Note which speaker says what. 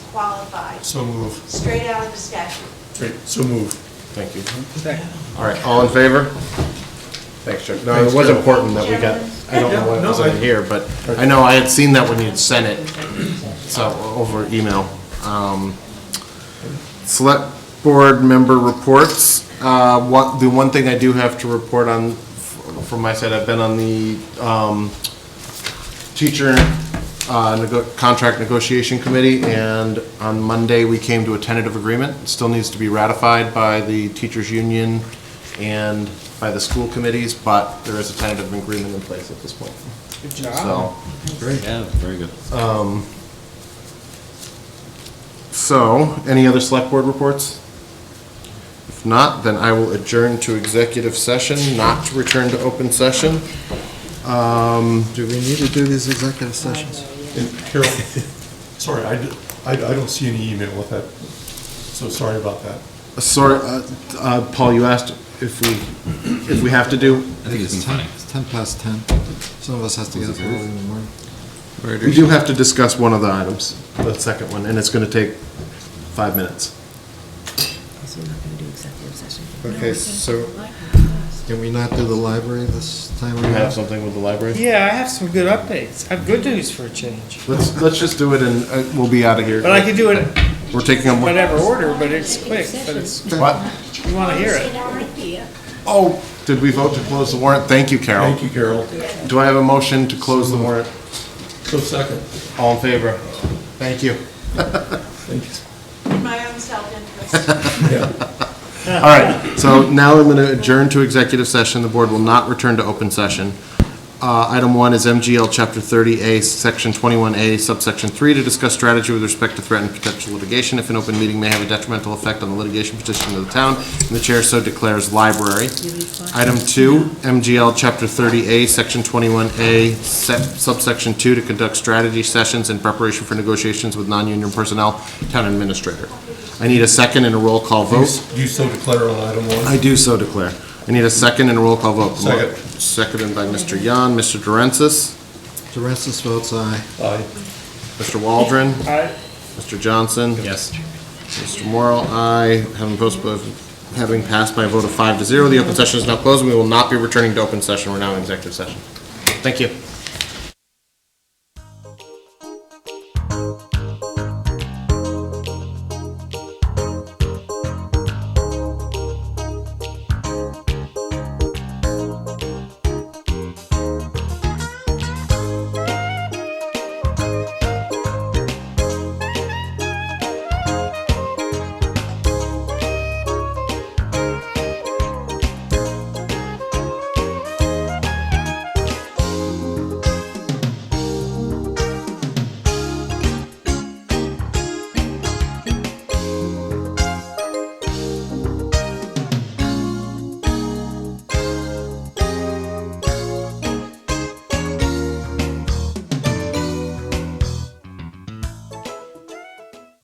Speaker 1: qualified,
Speaker 2: So move.
Speaker 1: straight out of the statute.
Speaker 2: Great, so move.
Speaker 3: Thank you. All right, all in favor? Thanks, Chuck. No,
Speaker 2: Thanks,
Speaker 3: it was
Speaker 2: Joe.
Speaker 3: important that we got, I don't know why it
Speaker 2: Yeah, no, I-
Speaker 3: wasn't here, but I know I had seen that when you'd sent it, so, over email. Um, Select Board member reports. Uh, What, the one thing I do have to report on f- from my side, I've been on the um, teacher uh, nego- contract negotiation committee, and on Monday, we came to a tentative agreement. It Still needs to be ratified by the teachers' union and by the school committees, but there is a tentative agreement in place at this point.
Speaker 4: Good
Speaker 3: So, um,
Speaker 5: Yeah, very good.
Speaker 3: so, any other select board reports? If not, then I will adjourn to executive session, not to return to open session. Um,
Speaker 6: Do we need to do these executive sessions?
Speaker 2: And Carol, sorry, I, d- I- I don't see any email with that, so sorry about that.
Speaker 3: Sorry, uh, uh, Paul, you asked if we, if we have to do,
Speaker 5: I think it's
Speaker 6: ten-
Speaker 5: funny.
Speaker 6: It's ten past ten. Some of us has to get up early in the morning.
Speaker 3: We do have to discuss one of the items, the second one, and it's going to take five minutes.
Speaker 7: So we're not going to do executive session.
Speaker 6: Okay, so can we not do the library this time
Speaker 3: You have
Speaker 6: around?
Speaker 3: something with the library?
Speaker 4: Yeah, I have some good updates. I have good news for a change.
Speaker 3: Let's, let's just do it and uh, we'll be out of here.
Speaker 4: But I could do it
Speaker 3: We're taking a.
Speaker 4: whatever order, but it's quick, but it's,
Speaker 3: What?
Speaker 4: you want to hear it.
Speaker 3: Oh, did we vote to close the warrant? Thank you, Carol.
Speaker 2: Thank you, Carol.
Speaker 3: Do I have a motion to close the warrant?
Speaker 2: So second.
Speaker 3: All in favor? Thank you.
Speaker 2: Thank you.
Speaker 1: In my own self-interest.
Speaker 3: All right, so now I'm going to adjourn to executive session. The board will not return to open session. Uh, Item one is MGL Chapter 30A, Section 21A, subsection 3, to discuss strategy with respect to threatened potential litigation if an open meeting may have a detrimental effect on the litigation petition of the town, and the chair so declares library. Item two, MGL Chapter 30A, Section 21A, sep- subsection 2, to conduct strategy sessions in preparation for negotiations with non-union personnel, town administrator. I need a second and a roll call
Speaker 2: Do you
Speaker 3: vote.
Speaker 2: s- do you so declare on item one?
Speaker 3: I do so declare. I need a second and a roll call vote.
Speaker 2: Second.
Speaker 3: Seconded by Mr. Yan, Mr. Durensis,
Speaker 6: Durensis votes aye.
Speaker 2: Aye.
Speaker 3: Mr. Waldron,
Speaker 4: I,
Speaker 3: Mr. Johnson.
Speaker 5: Yes.
Speaker 3: Mr. Morrow, aye. Having post, uh, having passed by a vote of five to zero, the open session is now closed. We will not be returning to open session. We're now in executive session. Thank you.